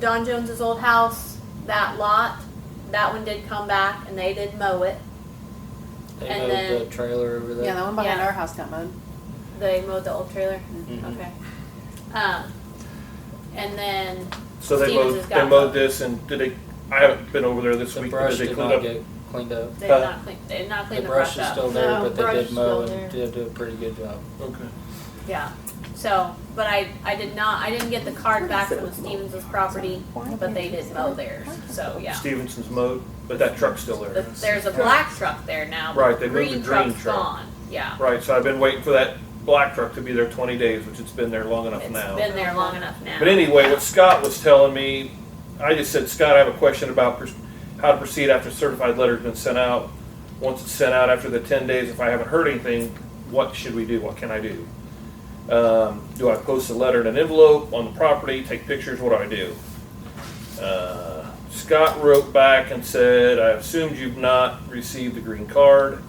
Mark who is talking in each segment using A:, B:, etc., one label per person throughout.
A: Don Jones's old house, that lot, that one did come back and they did mow it.
B: They
A: And
B: moved
A: then-
B: the trailer over there.
C: Yeah, that one behind
A: Yeah.
C: our house got mowed.
A: They mowed the old trailer.
D: Mm-hmm.
B: Mhm.
A: Okay. Um, and then
D: So they
A: Stevens
D: mowed,
A: has
D: they
A: got
D: mowed
A: one.
D: this and did they, I haven't been over there this
B: The
D: week, but
B: brush
D: did they
B: did
D: clean
B: not
D: up?
B: get cleaned up.
A: they
D: Huh?
A: did not clean, they did not
B: The
A: clean the brush
B: brush is
A: up.
B: still there,
E: No,
B: but they
E: brush
B: did
E: is
B: mow
E: still
B: and did do a pretty good job.
D: Okay.
A: Yeah, so, but I, I did not, I didn't get the card back from the Stevens' property, but they did mow theirs, so, yeah.
D: Stevenson's mowed, but that truck's still there.
A: But there's a black truck there now,
D: Right,
A: but
D: they
A: the
D: moved the
A: green
D: green
A: truck's
D: truck.
A: gone, yeah.
D: Right, so I've been waiting for that black truck to be there twenty days, which it's been there long enough now.
A: It's been there long enough now.
D: But anyway, what Scott was telling me, I just said, Scott, I have a question about pers- how to proceed after certified letter's been sent out. Once it's sent out after the ten days, if I haven't heard anything, what should we do? What can I do? Um, do I post the letter in an envelope on the property, take pictures? What do I do? Uh, Scott wrote back and said, I assumed you've not received the green card.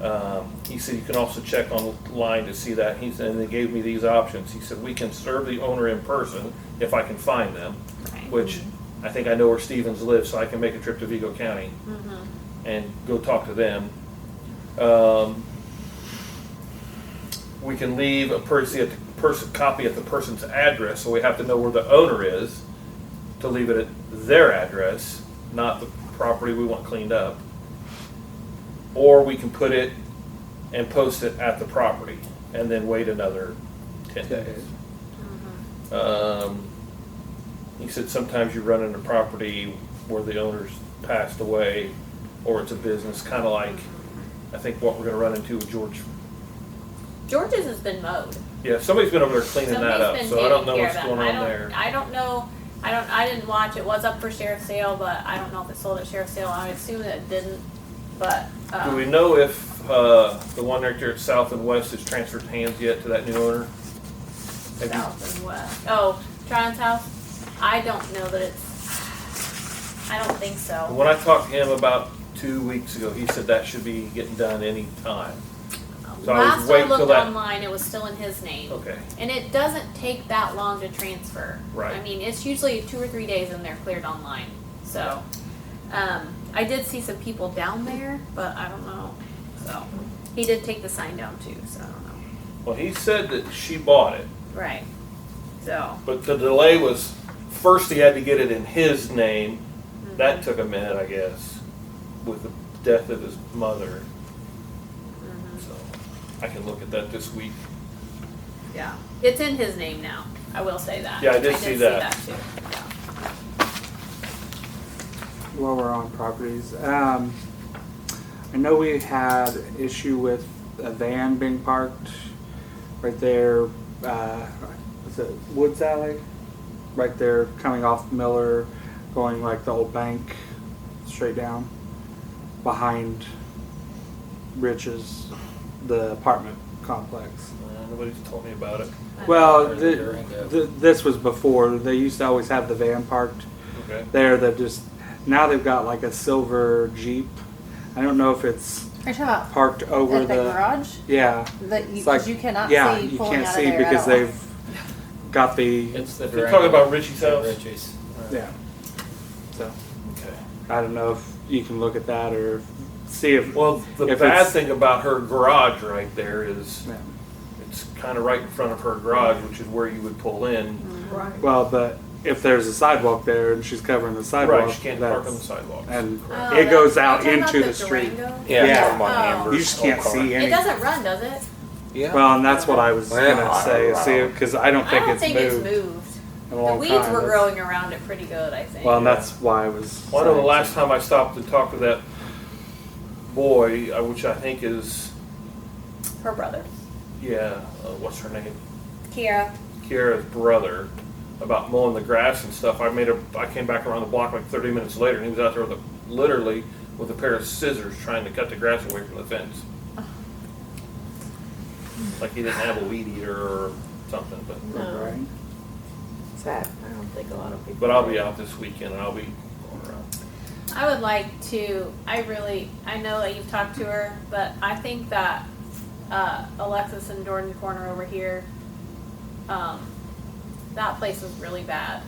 D: Um, he said you can also check online to see that. He said, and they gave me these options. He said we can serve the owner in person if I can find them,
A: Right.
D: which I think I know where Stevens lives, so I can make a trip to Vigo County
A: Mm-hmm.
D: and go talk to them. Um, we can leave a person, at the person copy at the person's address, so we have to know where the owner is to leave it at their address, not the property we want cleaned up. Or we can put it and post it at the property and then wait another ten days. Um, he said sometimes you run into property where the owner's passed away or it's a business, kind of like, I think what we're gonna run into with George.
A: George's has been mowed.
D: Yeah, somebody's been over there cleaning that up,
A: Somebody's been
D: so I don't
A: taking
D: know
A: care
D: what's
A: of that.
D: going
A: I
D: on
A: don't-
D: there.
A: I don't know, I don't, I didn't watch, it was up for sheriff's sale, but I don't know if it sold at sheriff's sale, I assume that it didn't, but,
D: Do we
A: um,
D: know if, uh, the one right there at South and West has transferred hands yet to that new owner? Have you-
A: south and west, oh, Tron's house, I don't know that it's, I don't think so.
D: When I talked to him about two weeks ago, he said that should be getting done any time. So I was
A: Last I
D: waiting till
A: looked
D: that-
A: online, it was still in his name.
D: Okay,
A: And it doesn't take that long to transfer.
D: Right.
A: I mean, it's usually two or three days and they're cleared online. So, um, I did see some people down there, but I don't know. So, he did take the sign down too, so I don't know.
D: well, he said that she bought it,
A: Right. So,
D: but the delay was, first he had to get it in his name.
A: Mm-hmm.
D: That took a minute, I guess, with the death of his mother.
A: mm-hmm.
D: So I can look at that this week.
A: yeah. It's in his name now. I will say that.
D: Yeah, I did see that.
A: See that too. Yeah.
F: while we're on properties, um, I know we had an issue with a van being parked right there, uh, was it Woods Alley? Right there, coming off Miller, going like the old bank, straight down, behind Rich's, the apartment complex.
D: Uh, Nobody's told me about it.
F: Well,
B: Or
F: th-
B: Durango.
F: th- this was before, they used to always have the van parked
D: Okay.
F: there that just now they've got like a silver jeep. I don't know if it's
C: Are you talking about
F: parked over
C: at the
F: the
C: garage?
F: yeah.
C: That you,
F: It's like-
C: 'cause you cannot
F: yeah,
C: see
F: you
C: pulling
F: can't
C: out
F: see
C: of there at
F: because
C: all.
F: they've got the
B: It's the
D: You're
B: Durango.
D: talking about Richie's
B: Yeah,
D: house?
B: Richie's.
F: yeah. So
D: Okay.
F: I don't know if you can look at that or see if
D: Well, the
F: If
D: bad
F: it's-
D: thing about her garage right there is
F: yeah.
D: it's kind of right in front of her garage, which is where you would pull
F: Mm-hmm.
D: in.
E: Right.
F: well, but if there's a sidewalk there and she's covering the sidewalk,
D: Right, she can't park on the
F: that's-
D: sidewalk.
F: and
A: Oh,
F: it
A: that-
F: goes
A: you're
F: out
A: talking about
F: into the, street.
A: Durango?
F: Yeah.
A: I'm on Amber's
F: You just can't see
A: Oh. It
F: any.
A: doesn't run, does it?
G: Yeah.
F: Well, and that's what I was
G: Well,
F: gonna say.
G: I-
F: See, because I don't
A: I
F: think,
A: don't
F: it's,
A: think
F: moved
A: it's moved.
F: in a
A: The
F: long
A: weeds
F: time.
A: were
F: That's-
A: growing around it pretty good, I think.
F: Well, and that's why I was.
D: Well, I know the
F: saying
D: last time I stopped to talk to that boy, uh, which I think is,
A: Her brother,
D: yeah, uh, what's her name?
A: Kiara.
D: Kiara's brother, about mowing the grass and stuff. I made a, I came back around the block like 30 minutes later, and he was out there with a, literally with a pair of scissors trying to cut the grass away from the fence. Like he didn't have a weed eater or something, but.
E: No,
F: Right.
E: sad. I don't think a lot of people.
D: But I'll be out this weekend and I'll be going around.
A: I would like to. I really. I know that you've talked to her, but I think that uh, Alexis and Jordan Corner over here, um, that place was really bad.